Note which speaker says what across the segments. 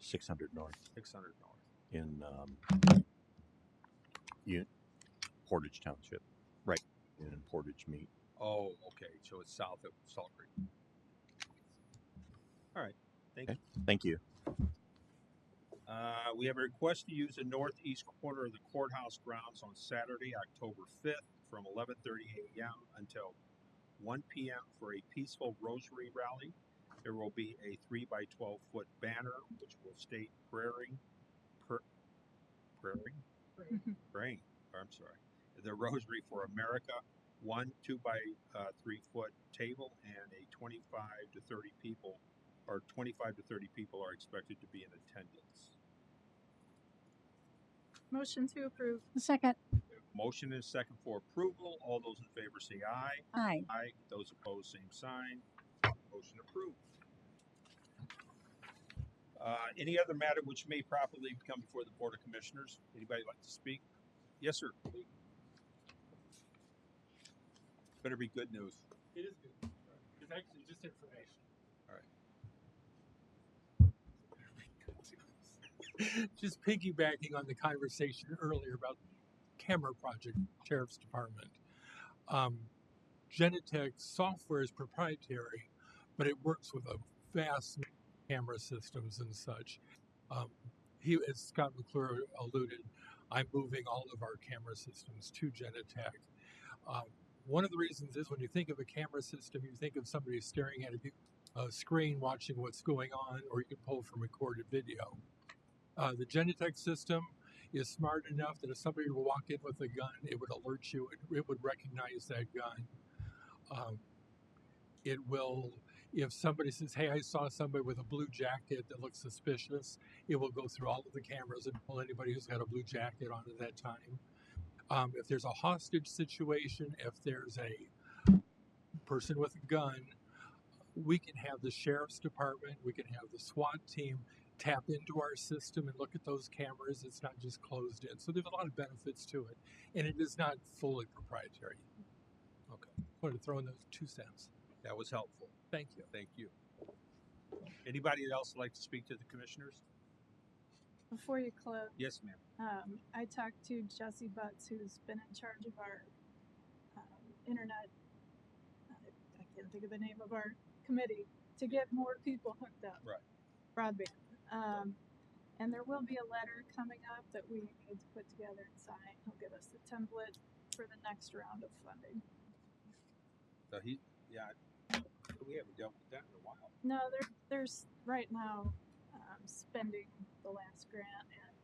Speaker 1: six hundred north
Speaker 2: six hundred north.
Speaker 1: in, um, U- Portage Township, right, in Portage Meat.
Speaker 2: Oh, okay, so it's south of Salt Creek. All right, thank
Speaker 1: Okay.
Speaker 2: you.
Speaker 1: Thank you.
Speaker 2: Uh, we have a request to use the northeast corner of the courthouse grounds on Saturday, October fifth, from eleven thirty AM until one PM for a peaceful rosary rally. There will be a three by twelve foot banner which will state praying, per, praying? Praying, I'm sorry, the Rosary for America, one two by, uh, three foot table and a twenty-five to thirty people or 25 to 30 people are expected to be in attendance.
Speaker 3: Motion to approve.
Speaker 4: Second.
Speaker 2: Motion and second for approval. All those in favor say aye.
Speaker 4: Aye.
Speaker 2: Aye. Those opposed, same sign. Motion approved. Uh, any other matter which may properly come before the Board of Commissioners? Anybody like to speak? Yes, sir. Better be good news.
Speaker 5: It is good. It's actually just information.
Speaker 2: Alright.
Speaker 5: Just piggybacking on the conversation earlier about camera project, sheriff's department. Um, Genetech software is proprietary, but it works with a vast n- camera systems and such. Um, he, as Scott McClure alluded, I'm moving all of our camera systems to Genetech. Um, one of the reasons is when you think of a camera system, you think of somebody staring at a, big- a screen watching what's going on, or you can pull from recorded video. Uh, the Genetech system is smart enough that if somebody were to walk in with a gun, it would alert you, it, it would recognize that gun. Um, it will, if somebody says, Hey, I saw somebody with a blue jacket that looks suspicious, it will go through all of the cameras and pull anybody who's got a blue jacket on at that time um, if there's a hostage situation, if there's a person with a gun, we can have the sheriff's department, we can have the SWAT team tap into our system and look at those cameras. It's not just closed in. So there's a lot of benefits to it. And it is not fully proprietary. Okay. Wanted to throw in those two cents.
Speaker 2: That was helpful.
Speaker 5: Thank you.
Speaker 2: Thank you. Anybody else like to speak to the Commissioners?
Speaker 3: Before you close,
Speaker 2: Yes, ma'am.
Speaker 3: um, I talked to Jesse Butts, who's been in charge of our um, internet. I, I can't think of the name of our committee to get more people hooked up.
Speaker 2: Right.
Speaker 3: Broadband. Um, and there will be a letter coming up that we need to put together and sign. He'll give us the template for the next round of funding.
Speaker 2: So he, yeah, we haven't dealt with that in a while.
Speaker 3: No, they're there's right now um, spending the last grant and,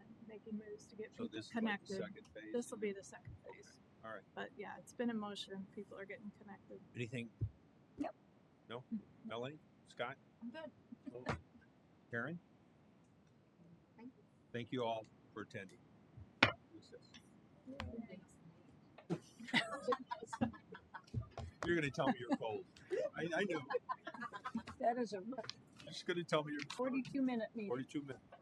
Speaker 3: and making moves to get
Speaker 2: So
Speaker 3: people
Speaker 2: this is like the
Speaker 3: connected.
Speaker 2: second phase.
Speaker 3: This will be the second phase.
Speaker 2: All right.
Speaker 3: But yeah, it's been in motion. People are getting connected.
Speaker 2: Anything?
Speaker 4: Nope.
Speaker 2: No?
Speaker 4: Mm-hmm.
Speaker 2: Melanie? Scott?
Speaker 4: I'm good.
Speaker 2: Karen?
Speaker 4: Thank
Speaker 2: you. Thank you all for attending. Recess. You're gonna tell me you're cold. I, I know.
Speaker 4: That is a
Speaker 2: You're just gonna tell me you're cold.
Speaker 4: forty-two minute meeting.
Speaker 2: Forty-two minutes.